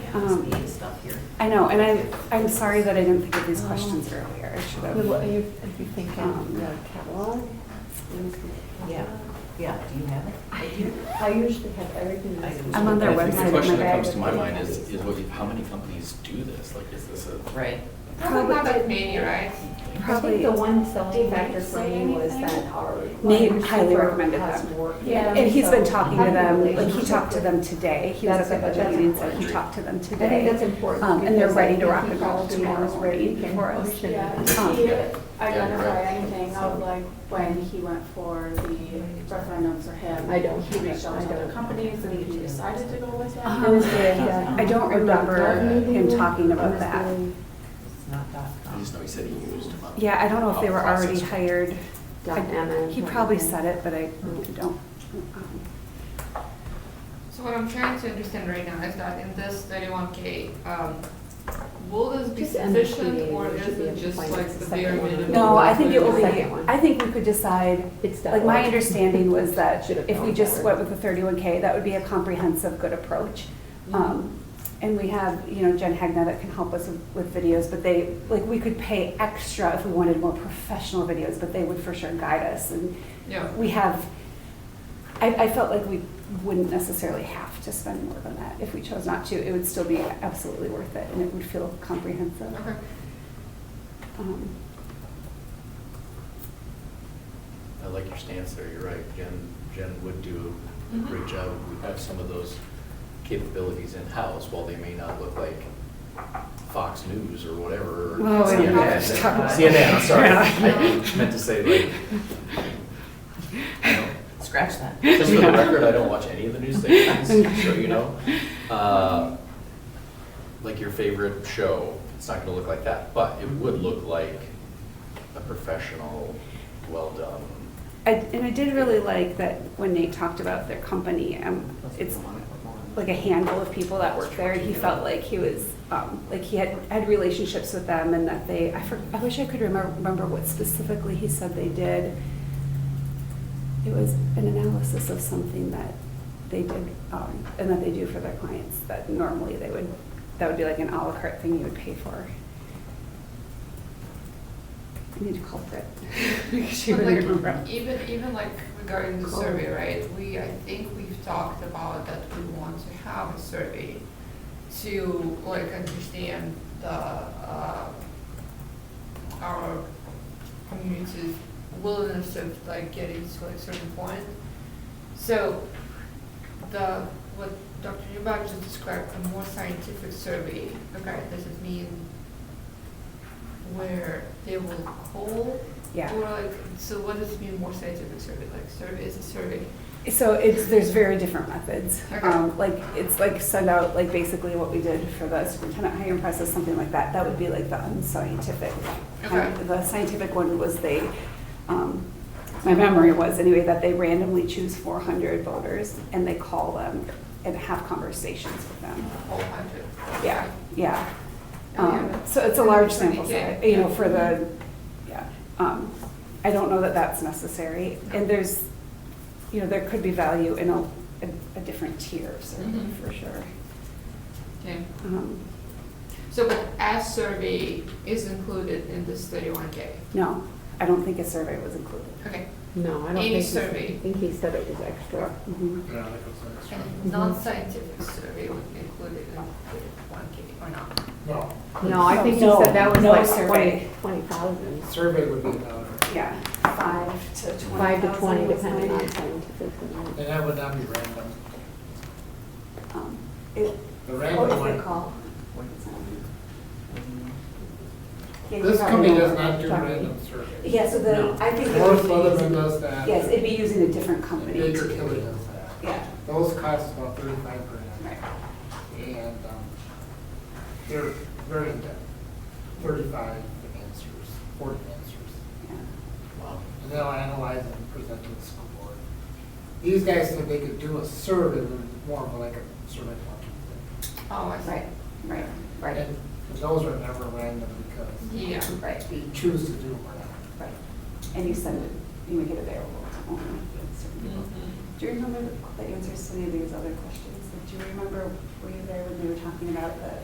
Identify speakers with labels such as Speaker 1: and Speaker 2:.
Speaker 1: Um,
Speaker 2: MSBA stuff here.
Speaker 1: I know, and I, I'm sorry that I didn't think of these questions earlier. I should
Speaker 3: The- What are
Speaker 1: have.
Speaker 3: you, are you thinking,
Speaker 1: Um,
Speaker 3: the catalog?
Speaker 2: Yeah, yeah, do you have it? Right here?
Speaker 3: I usually have everything.
Speaker 2: I
Speaker 3: that's-
Speaker 2: do. I'm on their
Speaker 4: I think
Speaker 1: website,
Speaker 4: The question
Speaker 1: my
Speaker 4: that
Speaker 1: bag
Speaker 4: comes to
Speaker 1: with
Speaker 4: my
Speaker 1: the
Speaker 4: mind is,
Speaker 1: papers.
Speaker 4: is what, you- how many companies do this? Like, is this a?
Speaker 2: Right.
Speaker 5: Probably not that many, right?
Speaker 3: I think
Speaker 1: Probably,
Speaker 3: the one selling
Speaker 5: Did Nate
Speaker 3: factor for
Speaker 5: say
Speaker 3: me was
Speaker 5: anything?
Speaker 3: that our.
Speaker 1: Nate
Speaker 3: our
Speaker 1: highly
Speaker 3: super
Speaker 1: recommended
Speaker 3: has
Speaker 1: them.
Speaker 3: worked.
Speaker 5: Yeah.
Speaker 1: and he's been
Speaker 3: So
Speaker 1: talking to
Speaker 3: having a
Speaker 1: them, like he
Speaker 3: relationship
Speaker 1: talked to
Speaker 3: with-
Speaker 1: them today. He was at
Speaker 3: That's
Speaker 1: the
Speaker 3: a-
Speaker 1: budget
Speaker 3: that's
Speaker 1: meeting, so he
Speaker 3: important.
Speaker 1: talked to them
Speaker 3: I think that's
Speaker 1: today.
Speaker 3: important.
Speaker 1: Um, and they're
Speaker 3: because
Speaker 1: ready
Speaker 3: I
Speaker 1: to
Speaker 3: think
Speaker 1: rock
Speaker 3: he
Speaker 1: and roll
Speaker 3: probably
Speaker 1: tomorrow
Speaker 3: knows
Speaker 1: ready
Speaker 3: we can
Speaker 1: for us.
Speaker 3: push
Speaker 5: Yeah,
Speaker 3: it.
Speaker 1: Um,
Speaker 5: if he
Speaker 4: yeah. Yeah,
Speaker 5: identified
Speaker 4: you're right.
Speaker 5: anything of like when he went for the referendums for him.
Speaker 3: I don't-
Speaker 5: He reached out
Speaker 3: I
Speaker 5: to other
Speaker 3: don't-
Speaker 5: companies and he decided to go with that.
Speaker 1: Uh-huh.
Speaker 3: Yeah, yeah.
Speaker 1: I don't remember him talking about that.
Speaker 2: It's not dot
Speaker 4: I
Speaker 2: com.
Speaker 4: just know he said he used them up.
Speaker 1: Yeah, I don't know if they were
Speaker 4: Process.
Speaker 1: already hired.
Speaker 3: Dot
Speaker 1: I-
Speaker 3: MN.
Speaker 1: He probably said it, but I
Speaker 3: Mm.
Speaker 1: don't. um,
Speaker 5: So what I'm trying to understand right now is that in this thirty-one K, um, will this be
Speaker 3: Just end the
Speaker 5: sufficient
Speaker 3: PDA,
Speaker 5: or
Speaker 3: it
Speaker 5: is
Speaker 3: should be
Speaker 5: it just
Speaker 3: applied
Speaker 5: like
Speaker 3: to the
Speaker 5: the bare
Speaker 3: second one.
Speaker 5: minimum?
Speaker 1: No, I think it will be,
Speaker 3: Second one.
Speaker 1: I think we could decide,
Speaker 3: It's
Speaker 1: like, my
Speaker 3: definitely-
Speaker 1: understanding was that
Speaker 3: Should have
Speaker 1: if we
Speaker 3: known
Speaker 1: just
Speaker 3: better.
Speaker 1: went with the thirty-one K, that would be a comprehensive, good approach.
Speaker 3: Mm-hmm.
Speaker 1: Um, And we have, you know, Jen Hagna that can help us with- with videos, but they, like, we could pay extra if we wanted more professional videos, but they would for sure guide us. And
Speaker 5: Yeah.
Speaker 1: we have, I, I felt like we wouldn't necessarily have to spend more than that if we chose not to. It would still be absolutely worth it, and it would feel comprehensive.
Speaker 5: Okay.
Speaker 1: Um,
Speaker 4: I like your stance there, you're right. Jen, Jen would do a
Speaker 5: Mhm.
Speaker 4: great job. We have some of those capabilities in-house, while they may not look like Fox News or whatever. or
Speaker 1: Well,
Speaker 5: we don't have to
Speaker 4: CNN.
Speaker 5: talk about-
Speaker 4: CNN, I'm sorry.
Speaker 1: Yeah.
Speaker 4: I meant to say like, I don't-
Speaker 2: Scratch that.
Speaker 4: Just for the record, I don't watch any of the news stations, so you know. Uh, Like your favorite show, it's not gonna look like that, but it would look like a professional, well-done.
Speaker 1: I, and I did really like that when Nate talked about their company, um, it's like a handful of people that work there, and he felt like he was, um, like he had, had relationships with them and that they, I for, I wish I could remember, remember what specifically he said they did. It was an analysis of something that they did, um, and that they do for their clients, that normally they would, that would be like an à la carte thing you would pay for. I need a culprit. She
Speaker 5: But
Speaker 1: really
Speaker 5: like,
Speaker 1: remember.
Speaker 5: Even, even like regarding the
Speaker 1: Cool.
Speaker 5: survey, right, we, I think we've talked about that we want to have a survey to like understand the, uh, our community's willingness of like getting to like certain point. So the, what Dr. Newbach just described, a more scientific survey, okay, does it mean where they will call?
Speaker 1: Yeah.
Speaker 5: Or like, so what does it mean more scientific survey, like survey is a survey?
Speaker 1: So it's, there's very different methods.
Speaker 5: Okay.
Speaker 1: Um, like, it's like send out, like basically what we did for the superintendent hiring process, something like that. That would be like the unscientific. kind.
Speaker 5: Okay.
Speaker 1: The scientific one was they, um, my memory was anyway, that they randomly choose four hundred voters and they call them and have conversations with them.
Speaker 5: All hundred.
Speaker 1: Yeah, yeah.
Speaker 5: Oh, yeah,
Speaker 1: Um,
Speaker 5: but-
Speaker 1: So it's a large
Speaker 5: For the
Speaker 1: sample
Speaker 5: kid,
Speaker 1: size, you know,
Speaker 5: yeah.
Speaker 1: for the, yeah. Um, I don't know that that's necessary. And there's, you know, there could be value in a, a- a different tier of survey
Speaker 3: Mm-hmm.
Speaker 5: Mhm.
Speaker 1: for sure.
Speaker 5: Okay,
Speaker 1: Um,
Speaker 5: so but as survey is included in this thirty-one K,
Speaker 1: No, I don't think a survey was included.
Speaker 5: okay.
Speaker 3: No, I don't
Speaker 5: Any
Speaker 3: think, he-
Speaker 5: survey.
Speaker 3: I think he said it was extra.
Speaker 1: Mhm.
Speaker 3: Mm-hmm.
Speaker 5: And non-scientific survey would be included in thirty-one K or not?
Speaker 6: No,
Speaker 3: No, I think he
Speaker 1: No,
Speaker 3: said that was
Speaker 1: no
Speaker 3: like
Speaker 1: survey.
Speaker 3: twenty, twenty thousand.
Speaker 6: survey would be another,
Speaker 1: Yeah, five to twenty
Speaker 3: Five to
Speaker 1: thousand
Speaker 3: twenty,
Speaker 1: was
Speaker 3: depending
Speaker 1: my-
Speaker 3: on scientific. and-
Speaker 6: and that would not be random.
Speaker 1: um, it-
Speaker 6: The
Speaker 1: What
Speaker 6: random
Speaker 1: is it
Speaker 6: one,
Speaker 1: called? Yeah, you
Speaker 6: this
Speaker 1: probably
Speaker 6: company
Speaker 1: know
Speaker 6: does
Speaker 1: what
Speaker 6: not
Speaker 1: I'm
Speaker 6: do
Speaker 1: talking-
Speaker 6: random surveys.
Speaker 1: Yeah, so the, I think. it
Speaker 6: Morris
Speaker 1: would be
Speaker 6: Leatherman
Speaker 1: using-
Speaker 6: does that.
Speaker 1: Yes, it'd be using a different company.
Speaker 6: Baker
Speaker 1: to-
Speaker 6: Tilly does that.
Speaker 1: Yeah,
Speaker 6: Those cost about thirty-five grand,
Speaker 1: right.
Speaker 6: and, um, they're very in-depth, thirty-five answers, forty answers.
Speaker 1: yeah.
Speaker 4: Wow.
Speaker 6: And they'll analyze and present to the school board. These guys said they could do a survey, but it's more of like a survey monkey
Speaker 5: Oh, I see.
Speaker 1: Right, right,
Speaker 6: thing.
Speaker 1: right,
Speaker 6: And those are never random because
Speaker 5: Yeah,
Speaker 1: right,
Speaker 6: you choose to do them or not.
Speaker 1: right. And you send it, you make it available to only certain people.
Speaker 5: Mhm.
Speaker 6: Mm-hmm.
Speaker 1: Do you remember the answers to any of these other questions? do you remember, were you there when they were talking about the